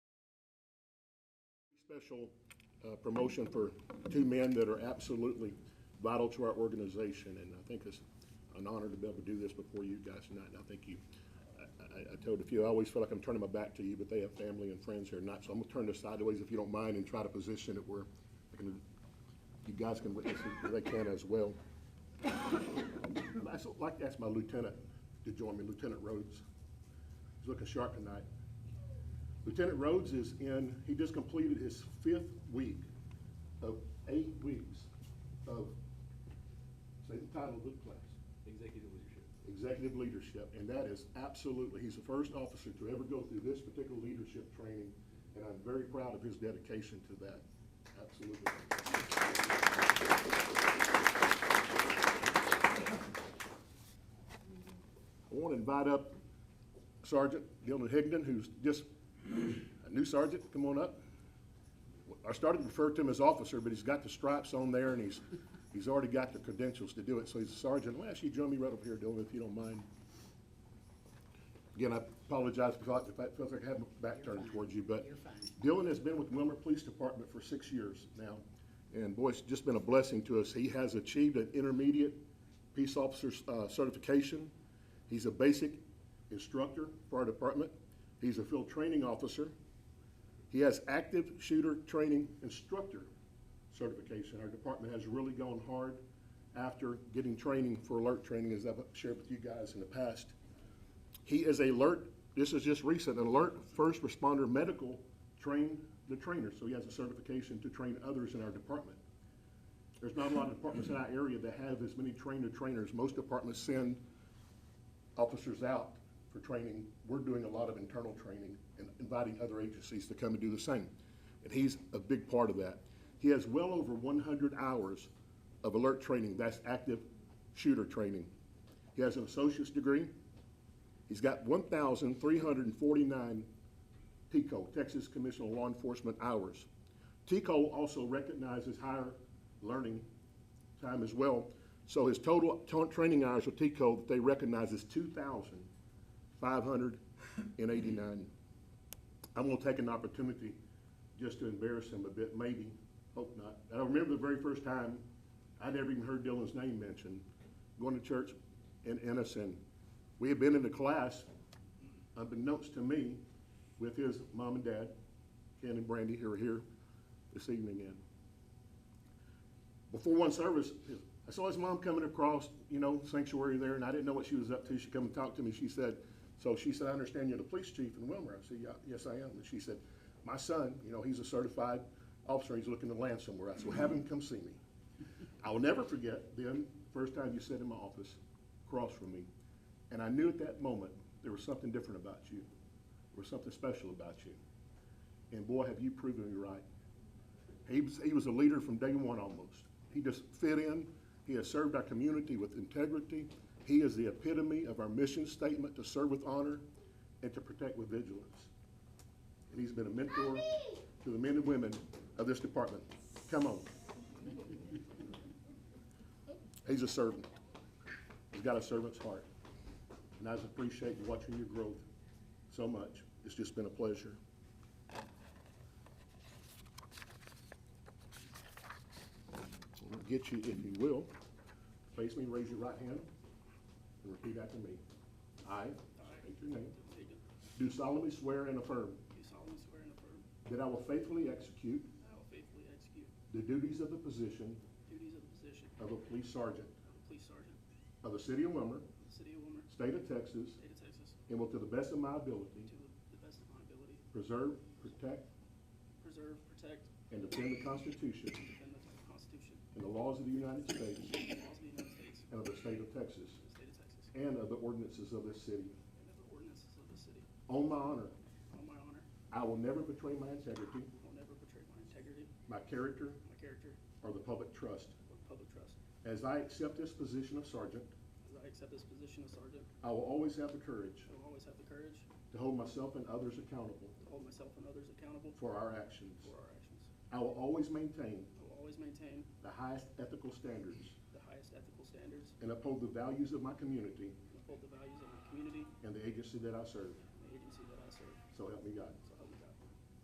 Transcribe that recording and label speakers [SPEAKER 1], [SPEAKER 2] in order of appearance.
[SPEAKER 1] special uh, promotion for two men that are absolutely vital to our organization, and I think it's an honor to be able to do this before you guys tonight, and I think you, I- I, I told a few, I always feel like I'm turning my back to you, but they have family and friends here tonight, so I'm gonna turn this sideways if you don't mind and try to position it where I can- you guys can witness it, if they can as well. I'd like to ask my lieutenant to join me, Lieutenant Rhodes. He's looking sharp tonight. Lieutenant Rhodes is in, he just completed his fifth week of eight weeks of, say the title of the class,
[SPEAKER 2] Executive leadership.
[SPEAKER 1] executive leadership, and that is absolutely, he's the first officer to ever go through this particular leadership training, and I'm very proud of his dedication to that, absolutely. I want to invite up Sergeant Gilden Higdon, who's just a new sergeant, come on up. I started to refer to him as officer, but he's got the stripes on there and he's, he's already got the credentials to do it, so he's a sergeant. I'll ask you to join me right up here, Dylan, if you don't mind. Again, I apologize if I- if I felt like I had my back turned towards you, but
[SPEAKER 3] You're fine.
[SPEAKER 1] Dylan has been with Wilmer Police Department for six years now. And boy, it's just been a blessing to us. He has achieved an intermediate peace officer uh, certification. He's a basic instructor for our department. He's a field training officer. He has active shooter training instructor certification. Our department has really gone hard after getting training for alert training, as I've shared with you guys in the past. He is a alert, this is just recent, an alert first responder medical trained the trainer, so he has a certification to train others in our department. There's not a lot of departments in our area that have as many trainer trainers. Most departments send officers out for training. We're doing a lot of internal training and inviting other agencies to come and do the same. And he's a big part of that. He has well over one hundred hours of alert training, that's active shooter training. He has an associate's degree. He's got one thousand three hundred and forty-nine TCO, Texas Commission on Law Enforcement hours. TCO also recognizes higher learning time as well. So his total ta- training hours with TCO that they recognize is two thousand five hundred and eighty-nine. I'm gonna take an opportunity just to embarrass him a bit, maybe, hope not. I remember the very first time I'd ever even heard Dylan's name mentioned, going to church in Innocent. We had been in the class, unbeknownst to me, with his mom and dad, Ken and Brandy, who are here this evening. And before one service, I saw his mom coming across, you know, sanctuary there, and I didn't know what she was up to. She come and talked to me. She said, so she said, I understand you're the police chief in Wilmer. I said, yeah, yes, I am. And she said, my son, you know, he's a certified officer. He's looking to land somewhere. I said, well, have him come see me. I'll never forget the first time you sat in my office across from me, and I knew at that moment there was something different about you. There was something special about you. And boy, have you proven me right. He was, he was a leader from day one almost. He just fit in. He has served our community with integrity. He is the epitome of our mission statement to serve with honor and to protect with vigilance. And he's been a mentor to the men and women of this department. Come on. He's a servant. He's got a servant's heart. And I just appreciate watching your growth so much. It's just been a pleasure. I'll Get you, if you will, face me, raise your right hand, and repeat after me. I, state your name,
[SPEAKER 2] Do
[SPEAKER 1] do solemnly swear and affirm
[SPEAKER 2] solemnly swear and affirm
[SPEAKER 1] that I will faithfully execute
[SPEAKER 2] that I will faithfully execute
[SPEAKER 1] the duties of the position
[SPEAKER 2] the duties of the position of
[SPEAKER 1] of a police sergeant
[SPEAKER 2] a police sergeant
[SPEAKER 1] of
[SPEAKER 2] of
[SPEAKER 1] the city of Wilmer,
[SPEAKER 2] the city of Wilmer,
[SPEAKER 1] state of Texas,
[SPEAKER 2] state of Texas,
[SPEAKER 1] and will to the best of my ability
[SPEAKER 2] to the best of my ability,
[SPEAKER 1] preserve, protect,
[SPEAKER 2] preserve, protect,
[SPEAKER 1] and defend the Constitution
[SPEAKER 2] and defend the Constitution
[SPEAKER 1] and the laws of the United States
[SPEAKER 2] and laws of the United States
[SPEAKER 1] and of the state of Texas
[SPEAKER 2] and the state of Texas,
[SPEAKER 1] and of the ordinances of this city.
[SPEAKER 2] and of the ordinances of the city.
[SPEAKER 1] On my honor,
[SPEAKER 2] On my honor,
[SPEAKER 1] I will never betray my integrity,
[SPEAKER 2] I will never betray my integrity,
[SPEAKER 1] my character,
[SPEAKER 2] my character,
[SPEAKER 1] or the public trust.
[SPEAKER 2] or public trust.
[SPEAKER 1] As I accept this position of sergeant,
[SPEAKER 2] As I accept this position of sergeant,
[SPEAKER 1] I will always have the courage
[SPEAKER 2] I will always have the courage to
[SPEAKER 1] to hold myself and others accountable
[SPEAKER 2] hold myself and others accountable
[SPEAKER 1] for our actions.
[SPEAKER 2] for our actions.
[SPEAKER 1] I will always maintain
[SPEAKER 2] I will always maintain
[SPEAKER 1] the highest ethical standards
[SPEAKER 2] the highest ethical standards
[SPEAKER 1] and uphold the values of my community
[SPEAKER 2] and uphold the values of my community
[SPEAKER 1] and the agency that I serve.
[SPEAKER 2] and the agency that I serve.
[SPEAKER 1] So help me God.
[SPEAKER 2] So